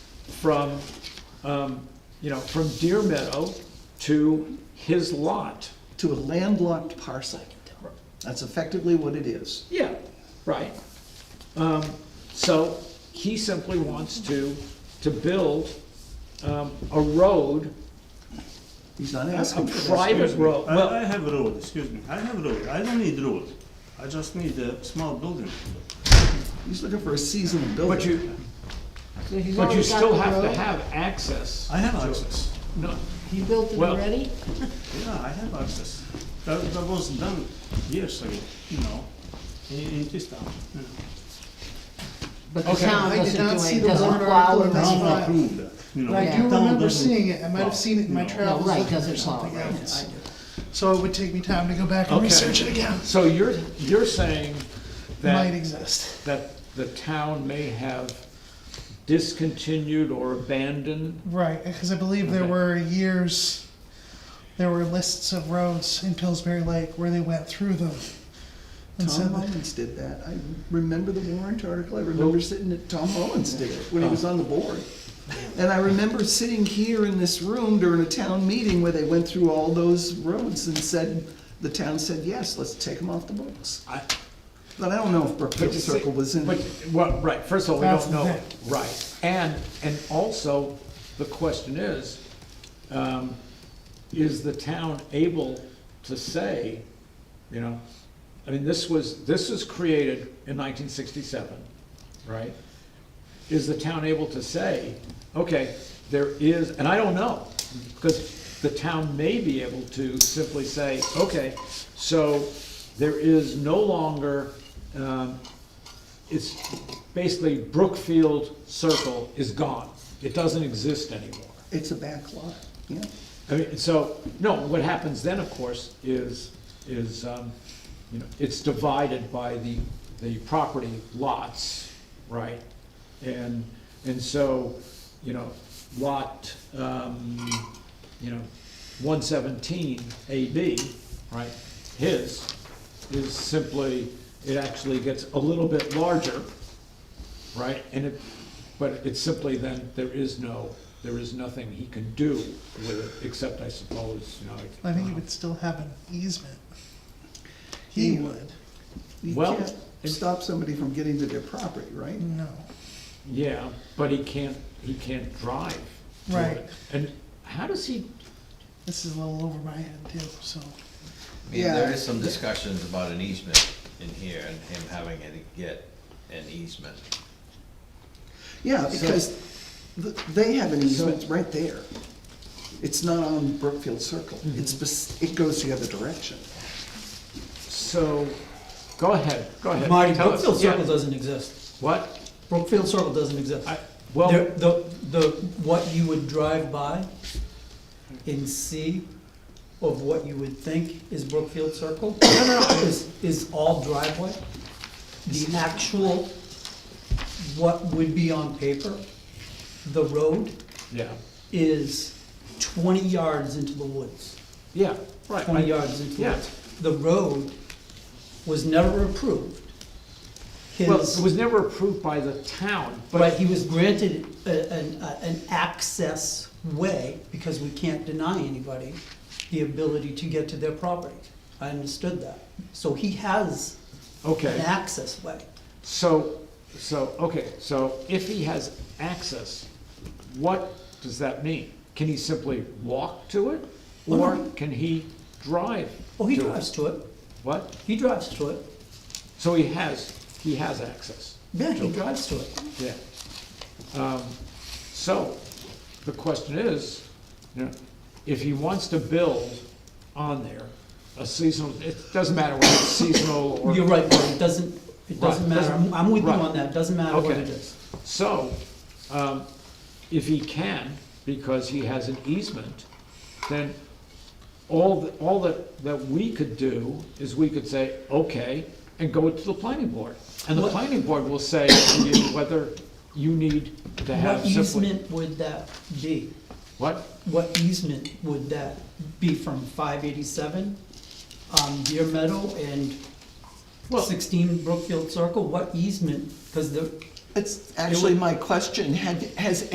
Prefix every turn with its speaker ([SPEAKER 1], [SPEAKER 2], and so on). [SPEAKER 1] from, um, you know, from Deer Meadow to his lot.
[SPEAKER 2] to a landlocked parcel. That's effectively what it is.
[SPEAKER 1] Yeah, right. Um, so he simply wants to, to build, um, a road,
[SPEAKER 2] He's not
[SPEAKER 1] a
[SPEAKER 2] asking for that.
[SPEAKER 1] private
[SPEAKER 3] Excuse me, Uh,
[SPEAKER 1] road, well.
[SPEAKER 3] I, I have road, excuse me, I have road, I don't need road, I just need a small building.
[SPEAKER 2] He's looking for a seasonal builder.
[SPEAKER 1] But you,
[SPEAKER 4] he's
[SPEAKER 1] but you
[SPEAKER 4] already got
[SPEAKER 1] still
[SPEAKER 4] the
[SPEAKER 1] have to
[SPEAKER 4] road.
[SPEAKER 1] have access.
[SPEAKER 3] I have access,
[SPEAKER 1] No,
[SPEAKER 4] You built it
[SPEAKER 1] well-
[SPEAKER 4] already?
[SPEAKER 3] yeah, I have access, that, that was done years ago, you know, in, in this town, you know.
[SPEAKER 4] But the
[SPEAKER 1] Okay.
[SPEAKER 4] town
[SPEAKER 5] I did
[SPEAKER 4] doesn't
[SPEAKER 5] not
[SPEAKER 4] do
[SPEAKER 5] see
[SPEAKER 4] it,
[SPEAKER 5] the
[SPEAKER 4] doesn't
[SPEAKER 5] warrant
[SPEAKER 4] plow
[SPEAKER 5] article
[SPEAKER 4] it,
[SPEAKER 5] in this
[SPEAKER 4] doesn't-
[SPEAKER 3] Town
[SPEAKER 5] right.
[SPEAKER 3] approved that, you know.
[SPEAKER 5] But I do
[SPEAKER 3] Town
[SPEAKER 5] remember
[SPEAKER 3] doesn't
[SPEAKER 5] seeing it, I might have
[SPEAKER 3] plow,
[SPEAKER 5] seen it in my
[SPEAKER 3] you know.
[SPEAKER 5] travels
[SPEAKER 4] right,
[SPEAKER 5] looking
[SPEAKER 4] doesn't
[SPEAKER 5] for something
[SPEAKER 4] plow, right.
[SPEAKER 5] else. So it would take me time to go back and
[SPEAKER 1] Okay.
[SPEAKER 5] research it again.
[SPEAKER 1] so you're, you're saying
[SPEAKER 5] Might
[SPEAKER 1] that,
[SPEAKER 5] exist.
[SPEAKER 1] that the town may have discontinued or abandoned?
[SPEAKER 5] Right, because I believe there
[SPEAKER 1] Okay.
[SPEAKER 5] were years, there were lists of roads in Pillsbury Lake where they went through them. And
[SPEAKER 2] Tom
[SPEAKER 5] said that,
[SPEAKER 2] Mullins did that. I remember the warrant article. I remember sitting at, Tom Mullins did it
[SPEAKER 1] Oh.
[SPEAKER 2] when he was on the board. And I remember sitting here in this room during a town meeting where they went through all those roads and said, the town said, yes, let's take them off the books.
[SPEAKER 1] I-
[SPEAKER 2] But I don't know if Brookfield Circle was in.
[SPEAKER 1] But, well, right, first of all, we
[SPEAKER 5] That's
[SPEAKER 1] don't
[SPEAKER 5] the
[SPEAKER 1] know,
[SPEAKER 5] thing.
[SPEAKER 1] right, and, and also, the question is, um, is the town able to say, you know, I mean, this was, this was created in nineteen sixty-seven, right? Is the town able to say, okay, there is, and I don't know, because the town may be able to simply say, okay, so there is no longer, um, it's basically Brookfield Circle is gone. It doesn't exist anymore.
[SPEAKER 2] It's a back lot, yeah.
[SPEAKER 1] I mean, so, no, what happens then, of course, is, is, um, you know, it's divided by the, the property lots, right? And, and so, you know, lot, um, you know, one seventeen AB, right? His is simply, it actually gets a little bit larger, right? And it, but it's simply then, there is no, there is nothing he can do with it, except I suppose, you know.
[SPEAKER 5] I think he would still have an easement. He would,
[SPEAKER 2] You
[SPEAKER 1] Well,
[SPEAKER 2] can't
[SPEAKER 1] it's-
[SPEAKER 2] stop somebody from getting to their property, right?
[SPEAKER 5] no,
[SPEAKER 1] uh, Yeah, but he can't, he can't drive. to it.
[SPEAKER 5] Right.
[SPEAKER 1] And how does he,
[SPEAKER 5] this is a little over my head too, so,
[SPEAKER 6] I mean,
[SPEAKER 2] Yeah.
[SPEAKER 6] there is some discussions about an easement in here and him having to get an easement.
[SPEAKER 2] Yeah, because th- they have an easement right there. It's not on Brookfield Circle. It's, bes- it goes the other direction.
[SPEAKER 1] so, go ahead, go ahead.
[SPEAKER 7] Marty,
[SPEAKER 1] Tell us.
[SPEAKER 7] Brookfield
[SPEAKER 1] Yeah.
[SPEAKER 7] Circle doesn't exist.
[SPEAKER 1] What?
[SPEAKER 7] Brookfield Circle doesn't exist.
[SPEAKER 1] I,
[SPEAKER 7] There-
[SPEAKER 1] well,
[SPEAKER 7] The, the, what you would drive by and see of what you would think is Brookfield Circle is, is all driveway. The actual, what would be on paper, the road
[SPEAKER 1] yeah,
[SPEAKER 7] is twenty yards into the woods.
[SPEAKER 1] yeah, right. I-
[SPEAKER 7] twenty yards in
[SPEAKER 1] yeah.
[SPEAKER 7] front. The road was never approved.
[SPEAKER 1] Well, it
[SPEAKER 7] His,
[SPEAKER 1] was never approved by the town,
[SPEAKER 7] but
[SPEAKER 1] but,
[SPEAKER 7] he was granted a- an, a- an access way, because we can't deny anybody the ability to get to their property. I understood that. So he has
[SPEAKER 1] okay.
[SPEAKER 7] an access way.
[SPEAKER 1] So, so, okay, so if he has access, what does that mean? Can he simply walk to it, or can he drive?
[SPEAKER 7] Oh, he
[SPEAKER 1] to it?
[SPEAKER 7] drives to it.
[SPEAKER 1] What?
[SPEAKER 7] He drives to it.
[SPEAKER 1] So he has, he has access,
[SPEAKER 7] Yeah, he drives to it.
[SPEAKER 1] yeah. Um, So, the question is, you know, if he wants to build on there, a seasonal, it doesn't matter whether it's seasonal or.
[SPEAKER 7] You're right, Marty, it doesn't, it doesn't
[SPEAKER 1] Right.
[SPEAKER 7] matter. I'm with you
[SPEAKER 1] Right.
[SPEAKER 7] on that. It doesn't matter what
[SPEAKER 1] Okay.
[SPEAKER 7] it is.
[SPEAKER 1] So, um, if he can, because he has an easement, then all, th- all that, that we could do is we could say, okay, and go to the planning board. And the
[SPEAKER 7] What-
[SPEAKER 1] planning board will say to you whether you need to have
[SPEAKER 7] What
[SPEAKER 1] simply.
[SPEAKER 7] easement would that be?
[SPEAKER 1] What?
[SPEAKER 7] What easement would that be from five eighty-seven, um, Deer Meadow and
[SPEAKER 1] Well-
[SPEAKER 7] sixteen Brookfield Circle? What easement, because the,
[SPEAKER 2] That's actually my question. Had, has